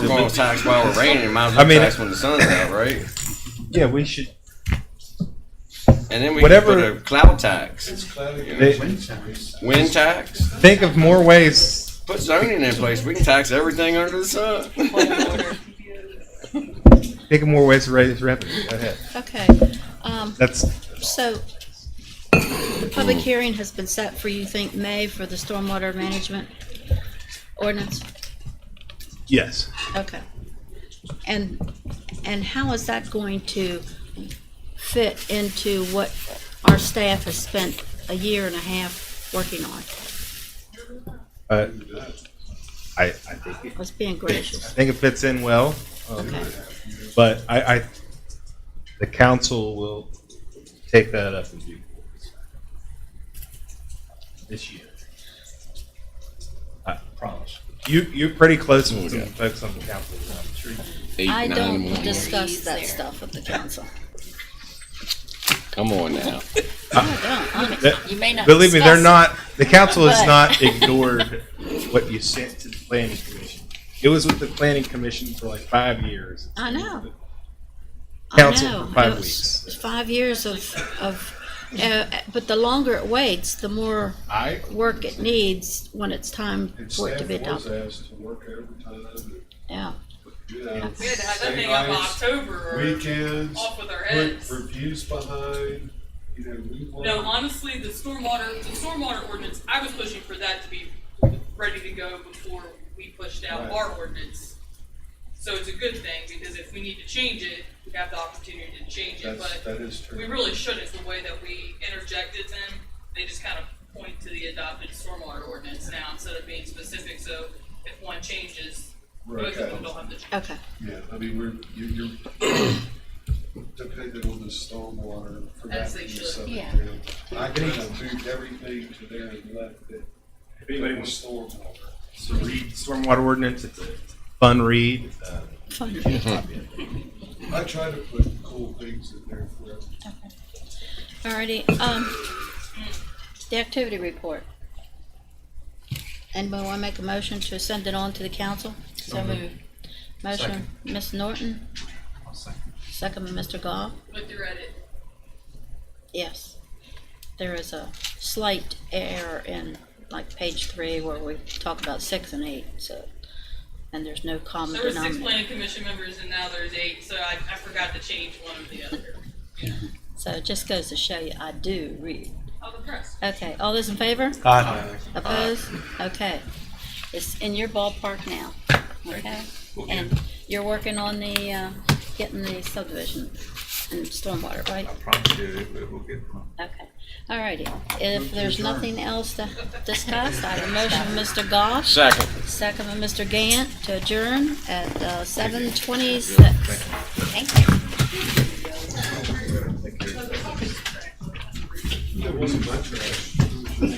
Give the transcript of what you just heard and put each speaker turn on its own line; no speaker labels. we're gonna tax while it's raining, might as
I
well
mean-
tax when the sun's out, right?
Yeah, we should.
And then we
Whatever-
can put a cloud tax,
It's cloudy.
They-
Wind times.
wind tax,
Think of more ways.
put zoning in place. We can tax everything under the sun.
Think of more ways to raise revenue. Go ahead.
Okay, um,
That's
so the public hearing has been set for, you think, May for the stormwater management ordinance?
yes.
Okay. And, and how is that going to fit into what our staff has spent a year and a half working on?
Uh, I I think it,
Let's being gracious,
I think it fits in well,
okay?
but I, I the council will take that up in due course this year. I promise. You you're pretty close with some folks on the council. I'm sure you-
Eight,
I
nine,
don't
one.
discuss that stuff with the council.
Come on now.
I don't, I'm-
That-
You may not.
Believe me, they're
discuss
not. The council has
But-
not ignored what you sent to the planning commission. It was with the planning commission for like five years.
I know.
Council
I know.
for five
It was
weeks.
Five years of, of, uh, but the longer it waits, the more
I,
work it needs when it's time
and
for it
staff
to be
was
done.
asked to work overtime,
Yeah.
you know.
We had to have that thing up in
Saturdays,
October or
Weekends,
off with our
put
heads.
reviews behind, you know, we work.
No, honestly, the stormwater, the stormwater ordinance, I was pushing for that to be ready to go before we pushed out
Right.
our ordinance. So it's a good thing, because if we need to change it, we have the opportunity to change it,
That's,
but
that is true.
we really shouldn't, the way that we interjected them. They just kind of point to the adopted stormwater ordinance now instead of being specific, so if one changes,
Right.
both of them don't have to change.
Okay.
Yeah, I mean, we're, you, you're dependent on the stormwater for that
As
to
they
be
should.
settled
Yeah.
down. I kind of moved everything to there and left it,
If anybody
it
wants
was stormwater.
to read stormwater ordinance, it's a fun read. Uh,
Fine.
I try to put cool things in there for everyone.
Alrighty, um, the activity report. Anybody wanna make a motion to send it on to the council? So moved. Motion, Ms. Norton? Second by Mr. Goff?
With your edit.
Yes. There is a slight error in like page three where we talk about six and eight, so, and there's no common
There were six
denominator.
planning commission members and now there's eight, so I, I forgot to change one of the other.
So it just goes to show you, I do read.
I'm impressed.
Okay, all those in favor?
Aye.
Opposed? Okay. It's in your ballpark now, okay? And you're working on the, uh, getting the subdivision and stormwater, right?
promise you, it it will get.
Okay, all righty. If there's nothing else to discuss, I have a motion, Mr. Goff,
Second.
second by Mr. Gant to adjourn at uh, 7:26.
It wasn't my trash.